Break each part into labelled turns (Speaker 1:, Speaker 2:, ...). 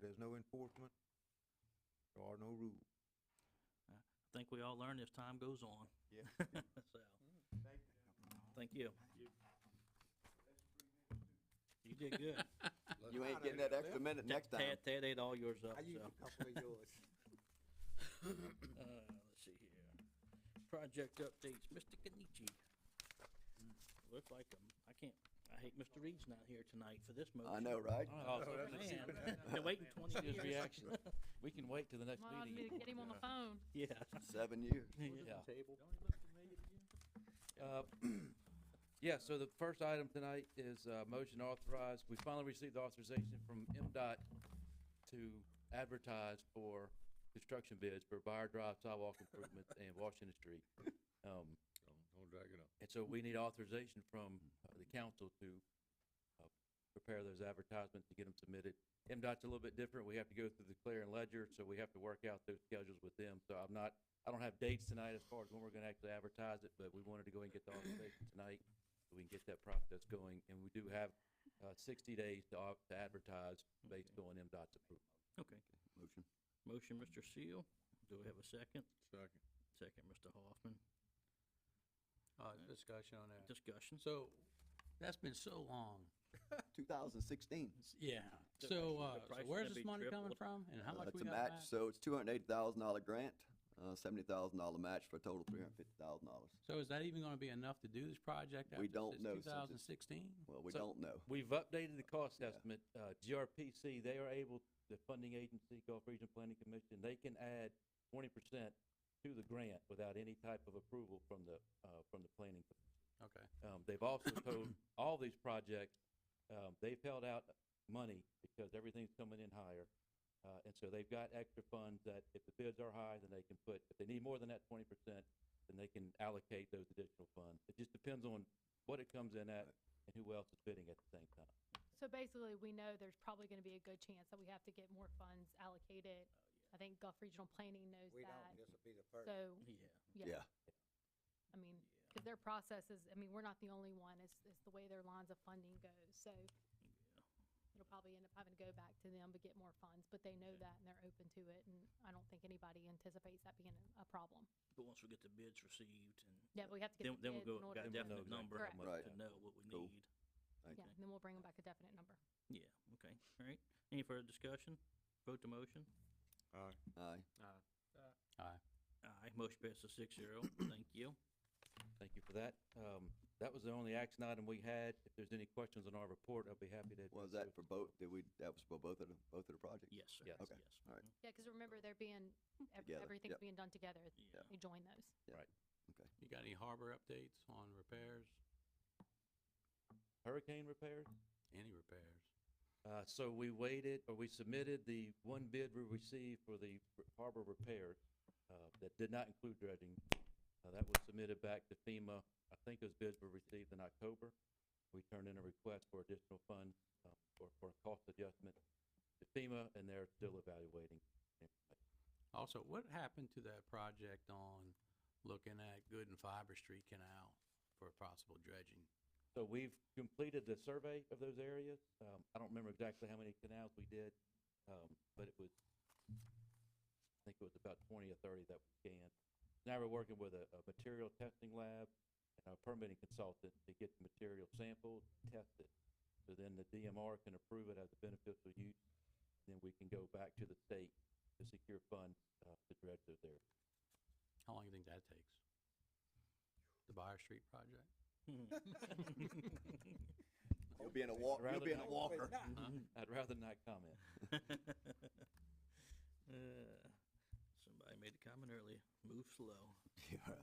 Speaker 1: there's no enforcement, there are no rules.
Speaker 2: I think we all learn as time goes on.
Speaker 1: Yeah.
Speaker 2: So, thank you. You did good.
Speaker 3: You ain't getting that extra minute next time.
Speaker 2: Ted, Ted ate all yours up,
Speaker 4: I used
Speaker 2: so.
Speaker 4: a couple of yours.
Speaker 2: Uh, let's see here. Project updates, Mr. Kenichi.
Speaker 3: Hmm.
Speaker 2: Looks like, um, I can't, I hate Mr. Reed's not here tonight for this motion.
Speaker 3: I know, right?
Speaker 2: Oh,
Speaker 5: Oh, that's a
Speaker 2: man,
Speaker 5: secret.
Speaker 2: been waiting twenty
Speaker 6: His
Speaker 2: years.
Speaker 6: reaction. We can wait till the next
Speaker 5: Might need to
Speaker 6: meeting.
Speaker 5: get him on the phone.
Speaker 2: Yeah.
Speaker 3: Seven years.
Speaker 6: Yeah.
Speaker 4: Table.
Speaker 6: Uh, Yeah, so the first item tonight is uh, motion authorized. We finally received authorization from MDOT to advertise for construction bids for Buyer Drive sidewalk improvements and Washington Street. Um,
Speaker 7: Don't drag it up.
Speaker 6: And so we need authorization from uh, the council to uh, prepare those advertisements, to get them submitted. MDOT's a little bit different. We have to go through the clear and ledger, so we have to work out those schedules with them. So I'm not, I don't have dates tonight as far as when we're gonna actually advertise it, but we wanted to go and get the authorization tonight so we can get that process going. And we do have uh, sixty days to au- to advertise based on MDOT's approval.
Speaker 2: Okay.
Speaker 3: Motion.
Speaker 2: Motion, Mr. Seal. Do we have a second?
Speaker 7: Second.
Speaker 2: Second, Mr. Hoffman.
Speaker 8: Uh, discussion on that.
Speaker 2: Discussion.
Speaker 8: So, that's been so long.
Speaker 3: Two thousand sixteen.
Speaker 8: S- Yeah,
Speaker 2: The price- the
Speaker 8: so, uh,
Speaker 2: price is
Speaker 8: so
Speaker 2: gonna
Speaker 8: where's this
Speaker 2: be
Speaker 8: money coming
Speaker 2: tripled.
Speaker 8: from and how much
Speaker 3: It's
Speaker 8: we
Speaker 3: Uh, a
Speaker 8: got
Speaker 3: match,
Speaker 8: back?
Speaker 3: so it's two hundred and eighty thousand dollar grant, uh, seventy thousand dollar match for a total three hundred and fifty thousand dollars.
Speaker 8: So is that even gonna be enough to do this project
Speaker 3: We
Speaker 8: after
Speaker 3: don't know since
Speaker 8: since two
Speaker 3: it's-
Speaker 8: thousand sixteen?
Speaker 3: Well, we
Speaker 6: So-
Speaker 3: don't know.
Speaker 6: We've updated the cost
Speaker 3: Yeah.
Speaker 6: estimate. Uh, GRPC, they are able, the funding agency, Gulf Region Planning Commission, they can add twenty percent to the grant without any type of approval from the, uh, from the planning. Com-
Speaker 8: Okay,
Speaker 6: Um, they've also told all these projects, um, they've held out money because everything's coming in higher. Uh, and so they've got extra funds that if the bids are high, then they can put, if they need more than that twenty percent, then they can allocate those additional funds. It just depends on what it comes in at and who else is bidding at the same time.
Speaker 5: So basically, we know there's probably gonna be a good chance that we have to get more funds allocated. I think Gulf Regional Planning knows
Speaker 4: We don't,
Speaker 5: that.
Speaker 4: this will be the first.
Speaker 5: So,
Speaker 2: Yeah.
Speaker 5: yeah, I mean, cause their process is, I mean, we're not the only one. It's, it's the way their lines of funding goes, so. It'll probably end up having to go back to them to get more funds, but they know
Speaker 2: Okay.
Speaker 5: that and they're open to it, and I don't think anybody anticipates that being a- a problem.
Speaker 2: But once we get the bids received and
Speaker 5: Yeah, but we have to
Speaker 2: then,
Speaker 5: get the
Speaker 2: then we'll
Speaker 5: bids
Speaker 2: go,
Speaker 5: in order
Speaker 2: got a
Speaker 5: to.
Speaker 6: Then we'll
Speaker 2: definite
Speaker 6: know
Speaker 2: number
Speaker 5: exactly
Speaker 3: how much
Speaker 2: to know what we
Speaker 3: Cool.
Speaker 2: need.
Speaker 3: Thank
Speaker 5: Yeah,
Speaker 3: you.
Speaker 5: and then we'll bring them back a definite number.
Speaker 2: Yeah, okay, all right. Any further discussion? Vote to motion?
Speaker 7: Aye.
Speaker 3: Aye.
Speaker 2: Aye, motion passes six zero. Thank you.
Speaker 6: Thank you for that. Um, that was the only action item we had. If there's any questions on our report, I'll be happy to.
Speaker 3: Was
Speaker 6: address
Speaker 3: that
Speaker 6: those.
Speaker 3: for both, did we, that was for both of the, both of the projects?
Speaker 2: Yes, sir.
Speaker 6: Yes.
Speaker 3: Okay,
Speaker 2: Yes.
Speaker 3: all right.
Speaker 2: Mhm.
Speaker 5: Yeah, because remember, they're being, ev-
Speaker 3: Together,
Speaker 5: everything's
Speaker 3: yep.
Speaker 5: being done together.
Speaker 2: Yeah.
Speaker 5: We join those.
Speaker 8: you got any harbor updates on repairs,
Speaker 6: Hurricane repairs?
Speaker 8: any repairs?
Speaker 6: Uh, so we waited, or we submitted the one bid we received for the r- harbor repairs, uh, that did not include dredging. Uh, that was submitted back to FEMA. I think those bids were received in October. We turned in a request for additional funds, uh, for, for a cost adjustment to FEMA, and they're still evaluating.
Speaker 8: Also, what happened to that project on looking at Good and Fiber Street Canal for possible dredging?
Speaker 6: So we've completed the survey of those areas. Um, I don't remember exactly how many canals we did, um, but it was, I think it was about twenty or thirty that we scanned. Now we're working with a, a material testing lab and a permitting consultant to get the material sampled, tested. So then the DMR can approve it as a beneficial use, then we can go back to the state to secure funds, uh, to dredge those areas.
Speaker 8: How long do you think that takes? The Buyer Street project?
Speaker 3: You'll be in a walk, you'll
Speaker 6: Rather
Speaker 3: be in a
Speaker 6: than-
Speaker 3: walker.
Speaker 6: I'd rather not comment.
Speaker 2: Mm-hmm. Uh, Somebody made a comment earlier, move slow.
Speaker 3: Yeah.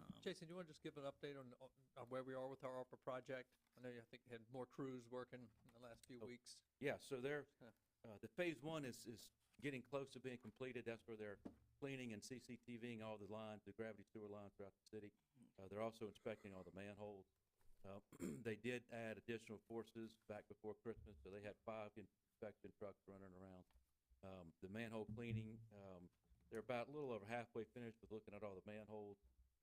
Speaker 2: Um,
Speaker 9: Jason, do you want to just give an update on, on where we are with our ARPA project? I know you, I think, had more crews working in the last few
Speaker 6: Oh.
Speaker 9: weeks.
Speaker 6: Yeah, so they're,
Speaker 9: Huh.
Speaker 6: uh, the phase one is, is getting close to being completed. That's where they're cleaning and CCTVing all the lines, the gravity sewer lines throughout the city. Uh, they're also inspecting all the manholes. Uh, they did add additional forces back before Christmas, so they had five inspection trucks running around. Um, the manhole cleaning, um, they're about a little over halfway finished with looking at all the manholes.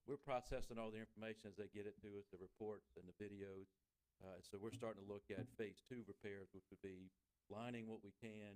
Speaker 6: We're processing all the information as they get it to us, the reports and the videos. Uh, so we're starting to look at phase two repairs, which would be lining what we can